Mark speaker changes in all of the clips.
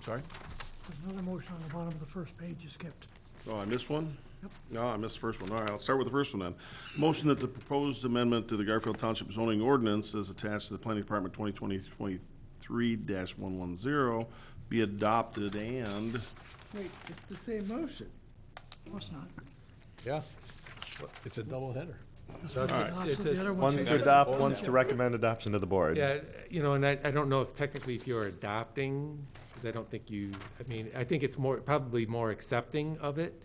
Speaker 1: Sorry?
Speaker 2: There's another motion on the bottom of the first page you skipped.
Speaker 1: Oh, I missed one? No, I missed the first one. All right, I'll start with the first one then. Motion that the proposed amendment to the Garfield Township zoning ordinance as attached to the Planning Department 2020-23-110 be adopted and,
Speaker 3: Wait, it's the same motion.
Speaker 2: No, it's not.
Speaker 4: Yeah, it's a double header.
Speaker 2: This
Speaker 4: All
Speaker 2: one's
Speaker 1: right.
Speaker 2: adopted,
Speaker 5: It's
Speaker 2: the
Speaker 5: a-
Speaker 2: other
Speaker 6: One's
Speaker 2: one's.
Speaker 6: to adopt, one's to recommend adoption to the board.
Speaker 5: Yeah, you know, and I, I don't know if technically if you're adopting, because I don't think you, I mean, I think it's more, probably more accepting of it.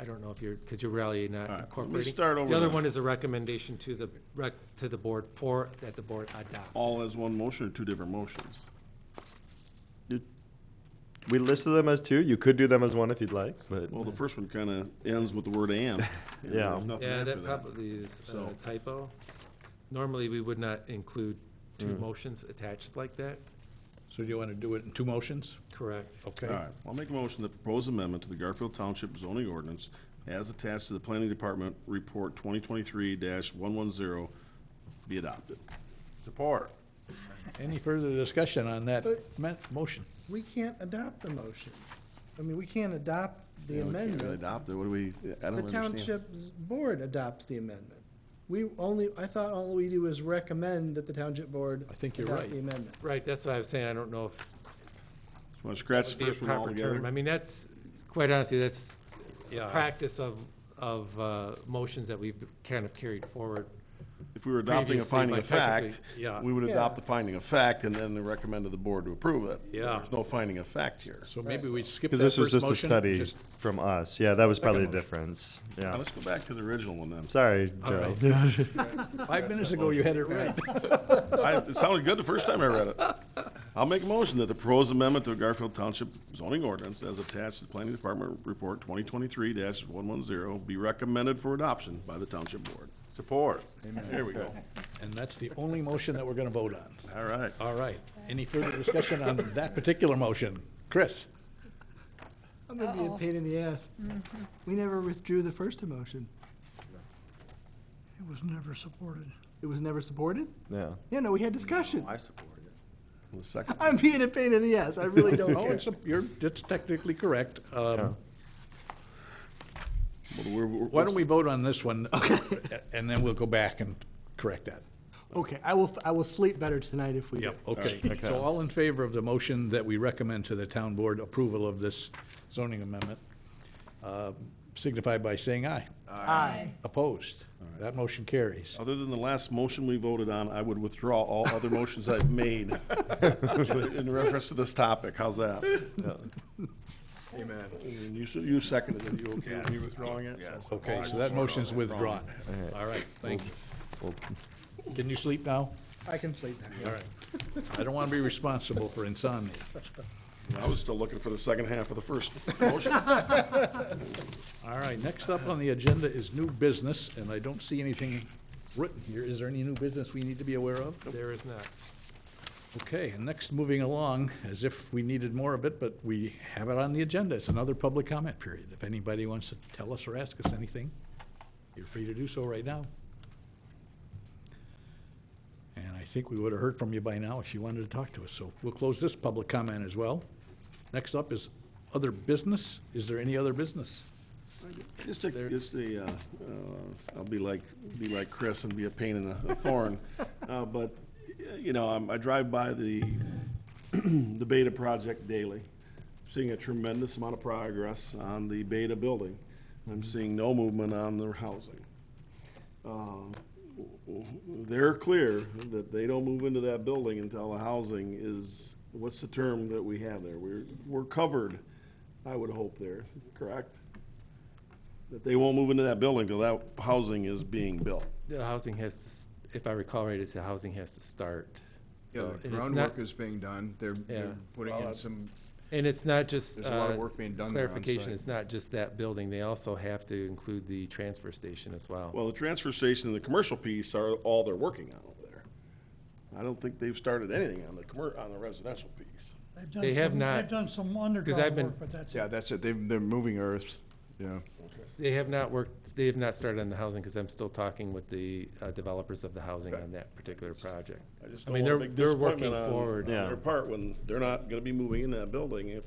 Speaker 5: I don't know if you're, because you're really
Speaker 1: All
Speaker 5: not
Speaker 1: right, let me
Speaker 5: incorporating.
Speaker 1: start over
Speaker 5: The other
Speaker 1: then.
Speaker 5: one is a recommendation to the, rec, to the board for, that the board adopt.
Speaker 1: all as one motion or two different motions?
Speaker 6: We listed them as two. You could do them as one if you'd like, but
Speaker 1: Well, the first one kind of ends with the word and. and
Speaker 6: Yeah.
Speaker 1: there's nothing
Speaker 5: Yeah,
Speaker 1: after
Speaker 5: that probably is
Speaker 1: So-
Speaker 5: a typo. Normally, we would not include two
Speaker 1: Hmm.
Speaker 5: motions attached like that,
Speaker 4: So do you want to do it in two motions?
Speaker 5: correct?
Speaker 1: All
Speaker 4: Okay.
Speaker 1: right, I'll make a motion that proposed amendment to the Garfield Township zoning ordinance as attached to the Planning Department Report 2023-110 be adopted.
Speaker 4: Support. Any further discussion on that
Speaker 3: But-
Speaker 4: men- motion?
Speaker 3: We can't adopt the motion. I mean, we can't adopt the
Speaker 1: Yeah, we can't really
Speaker 3: amendment.
Speaker 1: Adopt it, what do we, I
Speaker 3: The
Speaker 1: don't understand.
Speaker 3: township's board adopts the amendment. We only, I thought all we do is recommend that the township board
Speaker 4: I think you're
Speaker 3: adopt
Speaker 4: right.
Speaker 3: the amendment.
Speaker 5: Right, that's what I was saying, I don't know if
Speaker 1: Want to scratch
Speaker 5: would
Speaker 1: the
Speaker 5: be a
Speaker 1: first one
Speaker 5: proper term. I
Speaker 1: altogether?
Speaker 5: mean, that's, quite honestly, that's the
Speaker 4: Yeah.
Speaker 5: practice of, of uh, motions that we've kind of carried forward.
Speaker 1: If we were adopting a
Speaker 5: Previously,
Speaker 1: finding
Speaker 5: by
Speaker 1: of fact,
Speaker 5: technically- yeah.
Speaker 1: we would
Speaker 3: Yeah.
Speaker 1: adopt the finding of fact and then recommend to the board to approve it.
Speaker 4: Yeah.
Speaker 1: There's no finding of fact here.
Speaker 4: So maybe we skip that
Speaker 6: because
Speaker 4: first
Speaker 6: this
Speaker 4: motion?
Speaker 6: was just a study
Speaker 4: just-
Speaker 6: from us. Yeah, that was probably the
Speaker 4: Second
Speaker 6: difference.
Speaker 1: Now,
Speaker 6: Yeah.
Speaker 1: let's go back to the original one then.
Speaker 6: Sorry,
Speaker 5: All
Speaker 6: Joe.
Speaker 5: right.
Speaker 4: Five minutes ago, you had it right.
Speaker 1: I, it sounded good the first time I read it. I'll make a motion that the proposed amendment to Garfield Township zoning ordinance as attached to the Planning Department Report twenty twenty-three one one zero be recommended for adoption by the township board.
Speaker 4: Support.
Speaker 1: There we go.
Speaker 4: And that's the only motion that we're going to vote on.
Speaker 1: All right.
Speaker 4: All right. Any further discussion on that particular motion? Chris?
Speaker 3: I'm gonna be a pain in the ass. Mm-hmm. We never withdrew the first motion.
Speaker 2: It was never supported.
Speaker 3: It was never supported?
Speaker 6: Yeah.
Speaker 3: Yeah, no, we had discussion.
Speaker 1: The second,
Speaker 3: I'm being a pain in the ass. I really don't
Speaker 4: No,
Speaker 3: care.
Speaker 4: Oh, it's, a- you're, it's technically correct.
Speaker 1: well,
Speaker 4: Um,
Speaker 1: we're- we're-
Speaker 4: Why don't we vote on this one? And then we'll go back and correct that.
Speaker 3: Okay, I will, I will sleep better tonight if we do.
Speaker 4: Okay, so all in favor of the motion that we recommend to the town board approval of this zoning amendment, uh, signify by saying aye.
Speaker 3: Aye.
Speaker 4: Opposed? That motion carries.
Speaker 1: Other than the last motion we voted on, I would withdraw all other motions I've made in reference to this topic. How's that? Amen. You, s- you seconded it. You okay with me withdrawing it? Yes.
Speaker 4: Okay, so that motion is withdrawn. All right, thank you. Can you sleep now?
Speaker 3: I can sleep now.
Speaker 4: All right. I don't want to be responsible for insomnia.
Speaker 1: I was still looking for the second half of the first motion.
Speaker 4: All right, next up on the agenda is new business, and I don't see anything written here. Is there any new business we need to be aware of?
Speaker 5: There is not.
Speaker 4: Okay, and next, moving along, as if we needed more of it, but we have it on the agenda. It's another public comment period. If anybody wants to tell us or ask us anything, you're free to do so right now. And I think we would have heard from you by now if you wanted to talk to us, so we'll close this public comment as well. Next up is other business. Is there any other business?
Speaker 1: Just a, just a, uh, uh, I'll be like, be like Chris and be a pain in the a thorn. Uh, But, y- you know, I'm- I drive by the, the Beta project daily, seeing a tremendous amount of progress on the Beta building. I'm seeing no movement on their housing. Uh, w- w- They're clear that they don't move into that building until the housing is, what's the term that we have there? We're, we're covered, I would hope there, correct? that they won't move into that building till that housing is being built.
Speaker 5: The housing has, to s- if I recall right, it's the housing has to start.
Speaker 7: Yeah,
Speaker 5: So,
Speaker 7: the
Speaker 5: and it's not-
Speaker 7: groundwork is being done. They're,
Speaker 5: Yeah.
Speaker 7: they're putting in some,
Speaker 5: And it's not just.
Speaker 7: There's a lot of
Speaker 5: uh,
Speaker 7: work being done there on
Speaker 5: Clarification,
Speaker 7: site.
Speaker 5: it's not just that building. They also have to include the transfer station as well.
Speaker 1: Well, the transfer station and the commercial piece are all they're working on over there. I don't think they've started anything on the commer, on the residential piece.
Speaker 2: They've done
Speaker 5: They have
Speaker 2: some-
Speaker 5: not,
Speaker 2: They've done some
Speaker 5: I've
Speaker 2: underground
Speaker 5: been-
Speaker 2: work, but that's
Speaker 7: yeah, that's it. They, they're moving earth, yeah.
Speaker 5: They have not worked, they have not started on the housing because I'm still talking with the uh, developers of the housing on that particular project.
Speaker 1: I just
Speaker 5: I
Speaker 1: don't
Speaker 5: mean,
Speaker 1: wanna
Speaker 5: they're-
Speaker 1: make
Speaker 7: uh,
Speaker 5: they're working
Speaker 1: disappointment on-
Speaker 5: forward.
Speaker 1: on Their part when they're not gonna be moving in that building if